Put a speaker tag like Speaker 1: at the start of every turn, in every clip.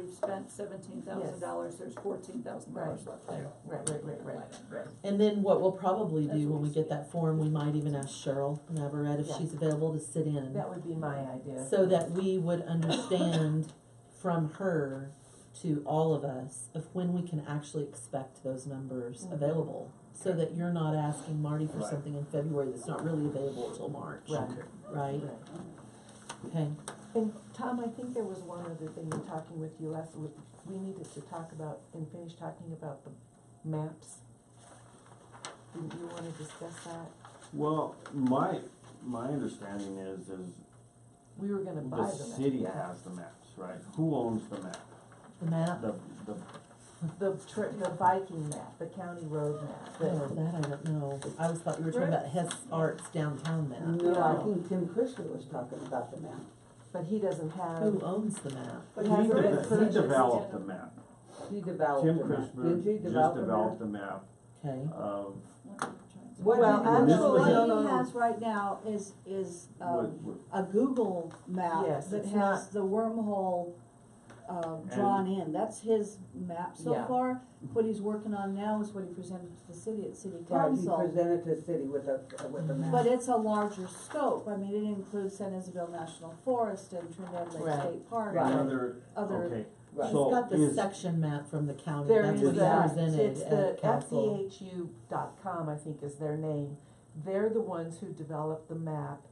Speaker 1: we've spent seventeen thousand dollars, there's fourteen thousand dollars left there.
Speaker 2: Right, right, right, right.
Speaker 1: Right.
Speaker 3: And then what we'll probably
Speaker 1: That's
Speaker 3: do
Speaker 1: what
Speaker 3: when we
Speaker 1: we
Speaker 3: get
Speaker 1: see.
Speaker 3: that form, we might even ask Cheryl Navarette if
Speaker 2: Yeah.
Speaker 3: she's available to sit in.
Speaker 2: That would be my idea.
Speaker 3: So that we would understand from her to all of us of when we can actually expect those numbers
Speaker 2: Mhm.
Speaker 3: available. So that you're not asking Marty for
Speaker 4: Right.
Speaker 3: something in February that's not really available till March,
Speaker 2: Right,
Speaker 4: Okay.
Speaker 3: right?
Speaker 2: right.
Speaker 3: Okay,
Speaker 2: And Tom, I think there was one other thing in talking with you last, we, we needed to talk about and finish talking about the maps. Didn't you wanna discuss that?
Speaker 5: Well, my, my understanding is, is
Speaker 2: We were gonna buy
Speaker 5: the
Speaker 2: the map.
Speaker 5: city has the maps, right? Who owns the map?
Speaker 3: the map,
Speaker 5: The, the,
Speaker 2: The tri- the Viking map, the county road map,
Speaker 3: oh,
Speaker 2: the,
Speaker 3: that I don't know. I always thought you were talking
Speaker 2: Right.
Speaker 3: about Hess Arts downtown map.
Speaker 6: No, I think Tim Chrisley was talking about the map.
Speaker 2: but he doesn't
Speaker 3: Who
Speaker 2: have,
Speaker 3: owns the map?
Speaker 2: But
Speaker 5: he
Speaker 2: has it been
Speaker 5: de- he
Speaker 2: purchased?
Speaker 5: developed the map.
Speaker 6: He developed
Speaker 5: Tim
Speaker 6: the map.
Speaker 5: Christmas
Speaker 6: Didn't he
Speaker 5: just
Speaker 6: develop the map?
Speaker 5: developed the map
Speaker 3: Okay.
Speaker 5: of
Speaker 6: What
Speaker 7: Well,
Speaker 6: did he do?
Speaker 5: This
Speaker 7: actually,
Speaker 5: was-
Speaker 6: No,
Speaker 7: what
Speaker 6: no,
Speaker 7: he
Speaker 6: no.
Speaker 7: has right now is, is,
Speaker 5: what,
Speaker 7: um,
Speaker 5: what,
Speaker 7: a Google map
Speaker 2: Yes,
Speaker 7: that
Speaker 2: it's
Speaker 7: has the wormhole, uh, drawn in, that's his map so
Speaker 2: Yeah.
Speaker 7: far. What he's working on now is what he presented to the city at city
Speaker 6: Right, he
Speaker 7: council,
Speaker 6: presented to the city with a, with a map.
Speaker 7: but it's a larger scope, I mean, it includes San Isabel National Forest and Trinidad Lake
Speaker 2: Right.
Speaker 7: State Park,
Speaker 6: Right.
Speaker 7: and
Speaker 5: another,
Speaker 7: other,
Speaker 5: okay,
Speaker 3: He's
Speaker 5: So
Speaker 3: got the
Speaker 5: is-
Speaker 3: section map from the county,
Speaker 2: there
Speaker 3: Um, that's
Speaker 2: is
Speaker 3: what he
Speaker 2: that,
Speaker 3: presented
Speaker 2: it's the
Speaker 3: at council.
Speaker 2: FDHU dot com, I think is their name. They're the ones who developed the map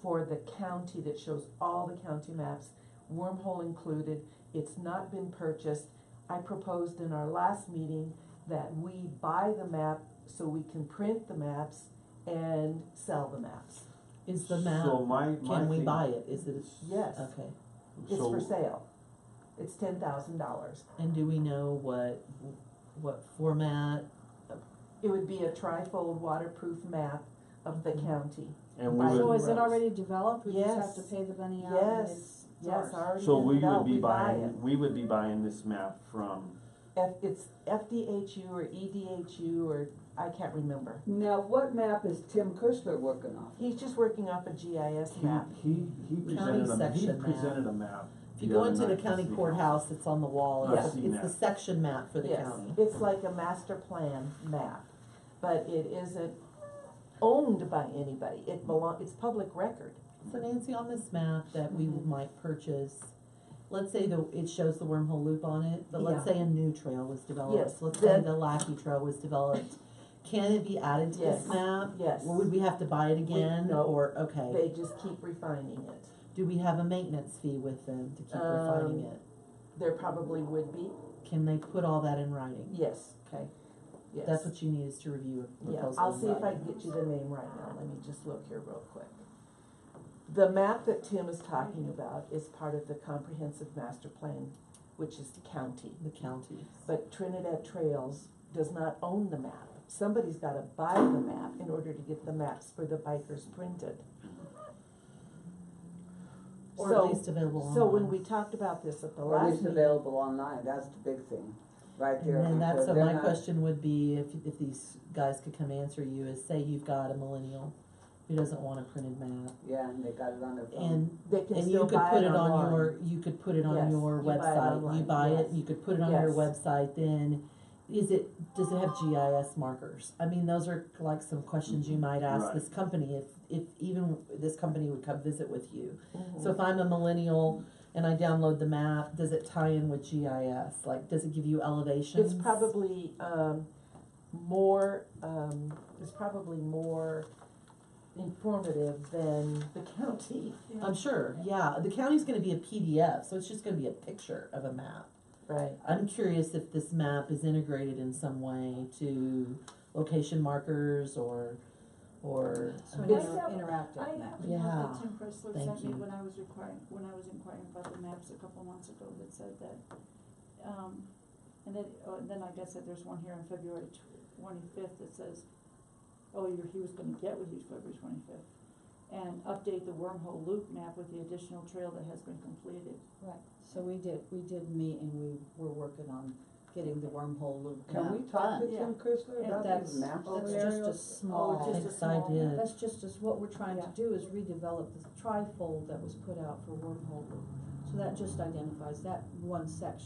Speaker 2: for the county that shows all the county maps, wormhole included. It's not been purchased. I proposed in our last meeting that we buy the map so we can print the maps and sell the maps.
Speaker 3: Is the
Speaker 5: So
Speaker 3: map,
Speaker 5: my, my
Speaker 3: can we
Speaker 5: thing-
Speaker 3: buy it? Is it,
Speaker 2: Yes,
Speaker 3: okay.
Speaker 2: it's
Speaker 5: so-
Speaker 2: for sale. It's ten thousand dollars.
Speaker 3: And do we know what, what format?
Speaker 2: It would be a trifold waterproof map of the
Speaker 3: Mm-hmm.
Speaker 2: county.
Speaker 5: And we
Speaker 2: Right.
Speaker 7: so
Speaker 5: would,
Speaker 7: is it already developed, we just have
Speaker 2: Yes.
Speaker 7: to pay the money out? and
Speaker 2: Yes,
Speaker 7: it's
Speaker 2: yes,
Speaker 7: ours.
Speaker 2: already
Speaker 5: so
Speaker 2: been
Speaker 5: we would
Speaker 2: developed.
Speaker 5: be
Speaker 2: We buy
Speaker 5: buying, we would be buying this map from,
Speaker 2: it. F, it's FDHU or E EDHU or, I can't remember.
Speaker 6: Now, what map is Tim Chrisley working off?
Speaker 2: He's just working off a GIS
Speaker 5: he,
Speaker 2: map.
Speaker 5: he, he presented a, he
Speaker 3: section map.
Speaker 5: presented a map.
Speaker 3: If you
Speaker 5: the
Speaker 3: go
Speaker 5: other
Speaker 3: into the
Speaker 5: night to
Speaker 3: county
Speaker 5: see.
Speaker 3: courthouse, it's on the wall,
Speaker 5: Yeah.
Speaker 3: it's, it's the section map for the
Speaker 2: Yes,
Speaker 3: county.
Speaker 2: It's like a master plan map, but it isn't owned by anybody. It belong, it's public record.
Speaker 3: So Nancy, on this map that we
Speaker 2: Mhm.
Speaker 3: might purchase, let's say the, it shows the wormhole loop on it, but let's
Speaker 2: Yeah.
Speaker 3: say a new trail was developed,
Speaker 2: Yes,
Speaker 3: let's say
Speaker 2: that-
Speaker 3: the Lackey Trail was developed. Can it be added to this
Speaker 2: Yes.
Speaker 3: map?
Speaker 2: Yes.
Speaker 3: Or would we have to buy it again,
Speaker 2: no.
Speaker 3: or, okay?
Speaker 2: They just keep refining it.
Speaker 3: Do we have a maintenance fee with them to keep refining
Speaker 2: Um,
Speaker 3: it?
Speaker 2: There probably would be,
Speaker 3: Can they put all that in writing?
Speaker 2: yes,
Speaker 3: Okay,
Speaker 2: yes.
Speaker 3: that's what you need is to review a
Speaker 2: Yeah,
Speaker 3: proposal.
Speaker 2: I'll
Speaker 3: in
Speaker 2: see if I
Speaker 3: writing.
Speaker 2: can get you the name right now, let me just look here real quick. The map that Tim is talking about is part of the comprehensive master plan, which is the county.
Speaker 3: The counties.
Speaker 2: But Trinidad Trails does not own the map. Somebody's gotta buy the map in order to get the maps for the bikers printed.
Speaker 3: Or at
Speaker 2: So,
Speaker 3: least available online.
Speaker 2: so when we talked about this at the
Speaker 6: Or
Speaker 2: last
Speaker 6: is it
Speaker 2: meeting,
Speaker 6: available online, that's the big thing, right there.
Speaker 3: And then that's,
Speaker 6: because
Speaker 3: so
Speaker 6: they're
Speaker 3: my
Speaker 6: not-
Speaker 3: question would be, if, if these guys could come answer you, is say you've got a millennial who doesn't want a printed map,
Speaker 6: Yeah, and they got it on their phone.
Speaker 3: and,
Speaker 2: they can
Speaker 3: and you
Speaker 2: still
Speaker 3: could
Speaker 2: buy it
Speaker 3: put it on
Speaker 2: online.
Speaker 3: your, you could put it on
Speaker 2: Yes,
Speaker 3: your
Speaker 2: you buy it
Speaker 3: website, you
Speaker 2: online,
Speaker 3: buy it,
Speaker 2: yes.
Speaker 3: you could put it on your
Speaker 2: Yes.
Speaker 3: website, then, is it, does it have GIS markers? I mean, those are like some questions
Speaker 2: Mm-hmm.
Speaker 3: you might ask
Speaker 5: Right.
Speaker 3: this company, if, if even this company would come visit with you.
Speaker 2: Mhm.
Speaker 3: So if I'm a millennial and I download the map, does it tie in with GIS? Like, does it give you elevations?
Speaker 2: It's probably, um, more, um, it's probably more informative than the county,
Speaker 3: I'm sure, yeah. The county's gonna be a PDF, so it's just gonna be a picture of a map.
Speaker 2: right?
Speaker 3: I'm curious if this map is integrated in some way to location markers or, or.
Speaker 7: So an
Speaker 2: It's-
Speaker 7: inter- interactive
Speaker 1: I
Speaker 7: map.
Speaker 1: have a
Speaker 3: Yeah,
Speaker 1: map that Tim Pressler
Speaker 3: thank
Speaker 1: sent me
Speaker 3: you.
Speaker 1: when I was requiring, when I was inquiring about the maps a couple months ago that said that, um, and then, oh, and then like I said, there's one here on February twenty-fifth that says, oh, you're, he was gonna get with you February twenty-fifth, and update the wormhole loop map with the additional trail that has been completed.
Speaker 7: Right, so we did, we did meet and we were working on getting the wormhole loop
Speaker 6: Can we
Speaker 7: map
Speaker 6: talk to
Speaker 7: done.
Speaker 1: Yeah.
Speaker 6: Tim Chrisley
Speaker 1: And
Speaker 6: about
Speaker 7: that's-
Speaker 6: these maps
Speaker 7: that's
Speaker 6: over
Speaker 7: just
Speaker 6: there?
Speaker 7: a small-
Speaker 1: Oh, just a
Speaker 3: Thanks, I
Speaker 1: small
Speaker 3: did.
Speaker 1: map.
Speaker 7: That's just, as what we're trying to
Speaker 1: Yeah.
Speaker 7: do is redevelop the trifold that was put out for wormhole loop. So that just identifies that one section.